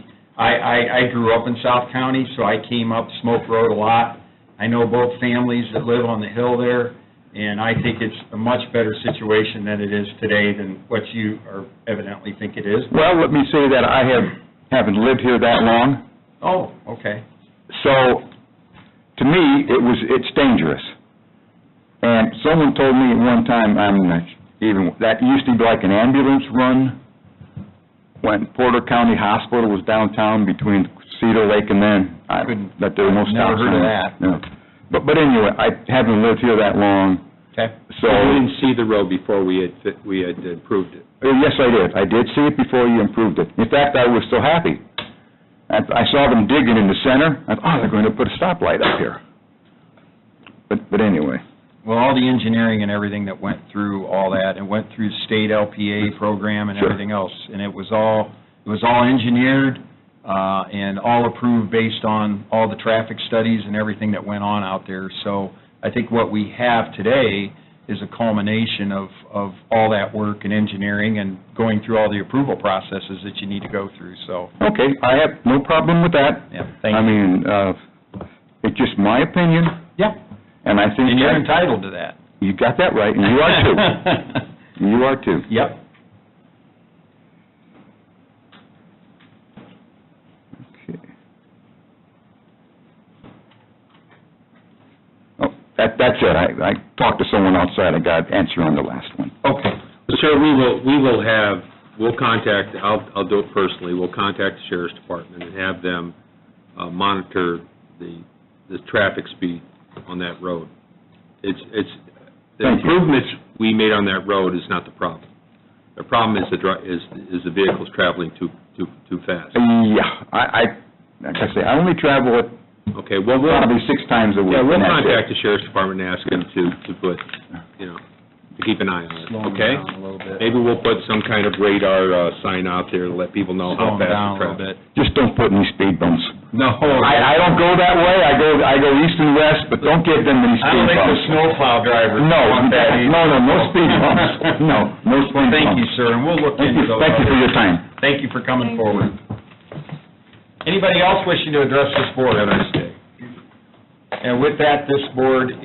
I, I, I grew up in South County, so I came up Smoke Road a lot. I know both families that live on the hill there, and I think it's a much better situation than it is today than what you are evidently think it is. Well, let me say that I have, haven't lived here that long, Oh, okay. so, to me, it was, it's dangerous. And someone told me one time, I'm not even, that used to be like an ambulance run when Porter County Hospital was downtown between Cedar Lake and then, I, Couldn't- that there were no never stop signs. heard of that. No. But, but anyway, I haven't lived here that long, Okay. so... We didn't see the road before we had, fi- we had approved it. Uh, Yes, I did. I did see it before you improved it. In fact, I was so happy. I I saw them digging in the center, I thought, oh, they're going to put a stoplight up here. But, but anyway, Well, all the engineering and everything that went through all that, and went through state LPA program and Sure. everything else, and it was all, it was all engineered, uh, and all approved based on all the traffic studies and everything that went on out there. So I think what we have today is a culmination of, of all that work and engineering and going through all the approval processes that you need to go through, so, okay, I have no problem with that. yeah, thank I you. mean, uh, it's just my opinion, Yeah, and I think... and you're that- entitled to that. You got that right, and you are too. You are too. Yep. Okay. Oh, that, that's it. I, I talked to someone outside, I got an answer on the last one. Okay. Sir, we will, we will have, we'll contact, I'll, I'll do it personally, we'll contact the sheriff's department and have them uh, monitor the, the traffic speed on that road. It's, it's, the Thank you. improvements we made on that road is not the problem. The problem is the, dri- is, is the vehicles traveling too, too, too fast. Yeah, I, I, like I say, I only travel it Okay, well, we'll, probably six times a week. yeah, we'll and that's it. contact the sheriff's department and ask them to, to put, you know, to keep an eye on it, Slowing okay? down a little bit. Maybe we'll put some kind of radar uh, sign out there to let people know how Slowing down a fast the little traffic. bit. Just don't put any speed bumps. No. I, I don't go that way, I go, I go east and west, but don't give them any I don't speed think the bumps. snowplow drivers No, want that either. no, no, no speed bumps, no, no speed bumps. Thank you, sir, and we'll look Thank you, into those. thank you for your time. Thank you for coming forward. Anybody else wishing to address this board on this day? And with that, this board